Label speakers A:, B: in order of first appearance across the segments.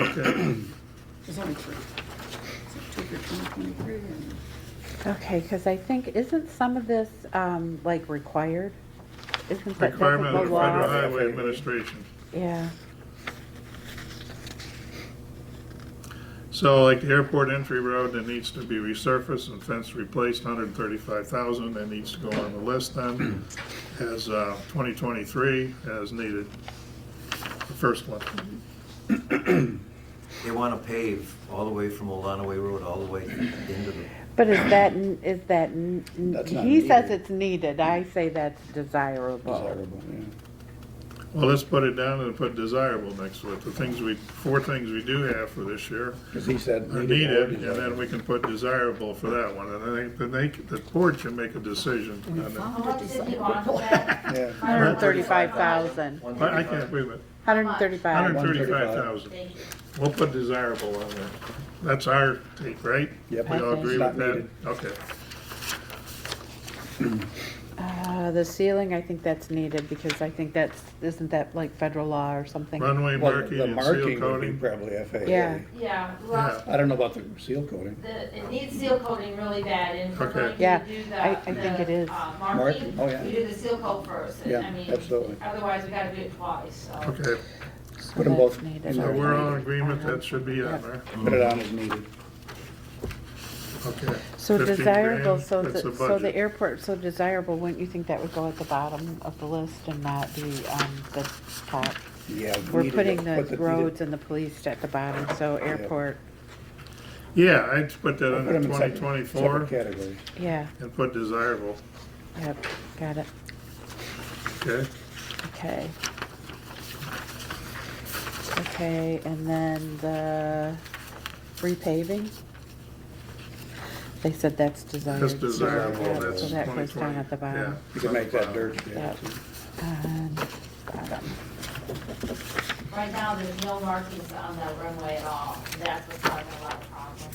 A: Okay,
B: There's only three. So two for 2023 and
C: Okay, because I think, isn't some of this, um, like required? Isn't that, doesn't
A: requirement
C: the
A: of the Federal
C: law?
A: Highway Administration.
C: Yeah,
A: So like the airport entry road that needs to be resurfaced and fence replaced, hundred and thirty-five thousand, that needs to go on the list then as, uh, twenty twenty-three as needed. The first one.
D: They want to pave all the way from Olanaway Road all the way into the,
C: but is that, n- is that, n- n-
E: That's not
C: he says
E: needed.
C: it's needed, I say that's desirable.
E: desirable, yeah.
A: Well, let's put it down and put desirable next to it. The things we, four things we do have for this year
E: Because he said.
A: are needed, and then we can put desirable for that one. And then they, then they, the board can make a decision
B: we
A: on that.
F: How
B: found it.
F: much did he want for that?
E: Yeah.
C: Hundred and thirty-five thousand.
D: one
A: I I can't, wait a minute,
C: Hundred and thirty-five.
A: hundred and thirty-five thousand.
F: Thank you.
A: We'll put desirable on there. That's our take, right?
E: Yep.
A: We all
C: Okay.
A: agree
E: Not
A: with that?
E: needed.
A: Okay.
C: Uh, the ceiling, I think that's needed, because I think that's, isn't that like federal law or something?
A: Runway
E: Well,
A: marking
E: the
A: and seal
E: marking would be
A: coating.
E: probably FAA.
C: Yeah.
F: Yeah,
A: Yeah.
F: well,
E: I don't know about the seal coating.
F: the, it needs seal coating really bad and we're
A: Okay.
F: going
C: Yeah,
F: to do the,
C: I- I think it
F: the,
C: is.
F: uh,
E: Marking,
F: marking.
E: oh, yeah.
F: We do the seal coat first. and,
E: Yeah,
F: I mean,
E: absolutely.
F: Otherwise, we gotta do it twice, so.
A: Okay,
C: So
E: Put 'em
C: that's
E: both
C: needed.
E: in
A: so
E: there.
A: we're all in agreement that should be on there.
E: Put it on as needed.
A: Okay.
C: So
A: 15
C: desirable,
A: grand,
C: so
A: that's
C: the, so the
A: budget.
C: airport, so desirable, wouldn't you think that would go at the bottom of the list and not the, um, the top?
E: Yeah.
C: We're
E: needed,
C: putting
E: but
C: the
E: needed-
C: roads and the police at the bottom, so airport,
A: Yeah, I'd put that
E: Put
A: under
E: them in
A: twenty
E: separate-
A: twenty-four
E: separate Category.
C: yeah,
A: and put desirable,
C: yep, got it,
A: okay?
C: okay. Okay, and then the repaving? They said that's desired.
A: That's
C: so
A: desirable,
C: yeah,
A: that's
C: So that
A: twenty
C: goes down
A: twenty.
C: at the bottom.
E: You can make that dirt. yeah,
C: Yep. And bottom.
F: Right now, there's no markings on the runway at all. That's what's causing a lot of problems.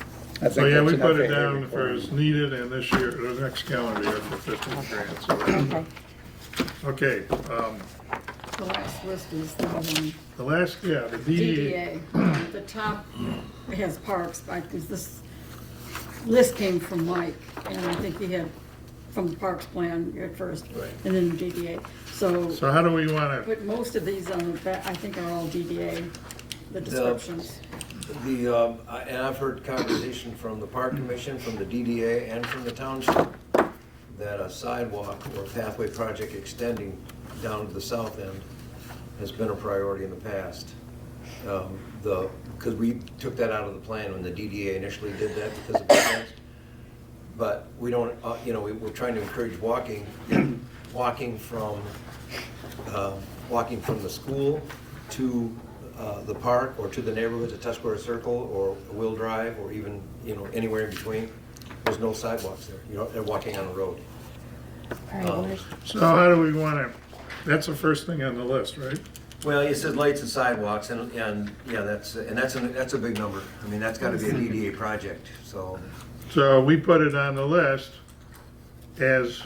A: So
E: I think
A: yeah,
E: that's
A: we
E: an
A: put it
E: FAA
A: down for
E: requirement.
A: as needed and this year, the next calendar year for fifteen grand, so,
C: Okay,
A: okay. um,
B: The last list is the one,
A: The last, yeah, the DDA.
B: DDA. At The top has parks, I think this list came from Mike, and I think he had from the parks plan at first, and then the DDA. So,
A: So how do we want to,
B: but most of these on the, ba- I think are all DDA, the descriptions.
D: The, um, I- and I've heard conversation from the Park Commission, from the DDA, and from the township, that a sidewalk or pathway project extending down to the south end has been a priority in the past. Um, The, because we took that out of the plan when the DDA initially did that because of the plans. But we don't, uh, you know, we- we're trying to encourage walking, walking from um, walking from the school to uh, the park or to the neighborhood, to Tuscarora Circle or Will Drive or even, you know, anywhere in between, there's no sidewalks there. You know, they're walking on a road. Um,
C: all right, where's,
A: so how do we want to, that's the first thing on the list, right?
D: Well, you said lights and sidewalks and, and, yeah, that's, and that's, an- that's a big number. I mean, that's gotta be a DDA project, so
A: So we put it on the list as,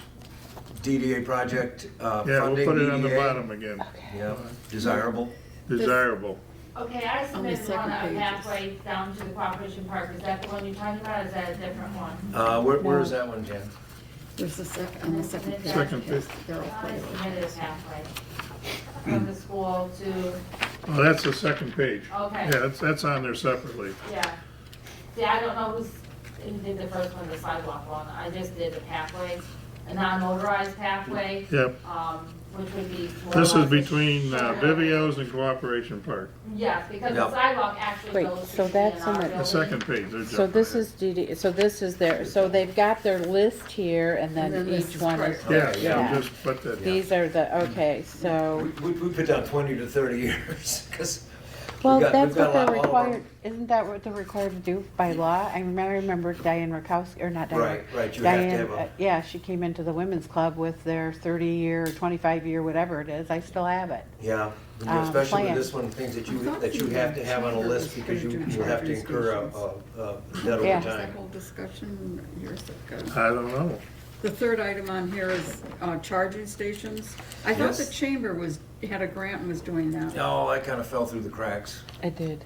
D: DDA project, uh,
A: yeah, we'll
D: funding,
A: put it on the
D: DDA,
A: bottom again,
D: Yeah, desirable.
A: desirable.
F: Okay, I submitted
B: second
F: one on
B: pages.
F: halfway down to the Cooperation Park. Is that the one you're talking about? or Is that a different one?
D: Uh, where, where is that one, Jan?
B: There's the sec, on the second page.
A: Second
B: yes,
A: page.
B: they're all
F: I
B: labeled.
F: submitted it halfway. From the school to,
A: Oh, that's the second page.
F: Okay.
A: Yeah, that's, that's on there separately.
F: yeah. See, I don't know who's, who did the first one, the sidewalk one. I just did the pathway, a non-motorized pathway.
A: Yep,
F: um, which would be.
A: this is between uh, Vivio's and Cooperation Park,
F: Yes, because the
D: Yeah.
F: sidewalk actually
C: Wait,
F: goes.
C: so
F: between
C: that's in
F: our
C: the-
A: the
F: building.
A: second page. they're
C: So
A: jumping
C: this
A: ahead.
C: is DD, so this is their, so they've got their list here and
B: And
C: then
B: then this
C: each
B: is
C: one
B: part-
C: is.
A: Yeah,
C: yeah.
A: yeah, just put that,
C: These are the, okay, so,
D: We, we we put down twenty to thirty years, because
C: well,
D: we've got,
C: that's
D: we've got
C: what
D: a lot,
C: they're
D: all of our
C: required, isn't that what they're required to do by law? I remember, I remember Diane Rakowski, or not Diane.
D: Right, right, you have to
C: Diane,
D: have a-
C: uh, Yeah, she came into the women's club with their thirty-year, twenty-five-year, whatever it is, I still have it.
D: Yeah, and
C: um,
D: especially with
C: plan.
D: this one, things that you,
B: I thought
D: that you
B: the
D: have to have on a
B: charter
D: list
B: was
D: because you,
B: gonna do
D: you have to
B: charter
D: incur a,
B: stations.
D: a, a debt
C: Yeah.
D: over
B: Is that
D: time.
B: whole discussion years ago?
A: I don't know.
B: The third item on here is uh, charging stations. I thought the
D: Yes.
B: chamber was, had a grant and was doing that.
D: No, I kind of fell through the cracks.
C: I did.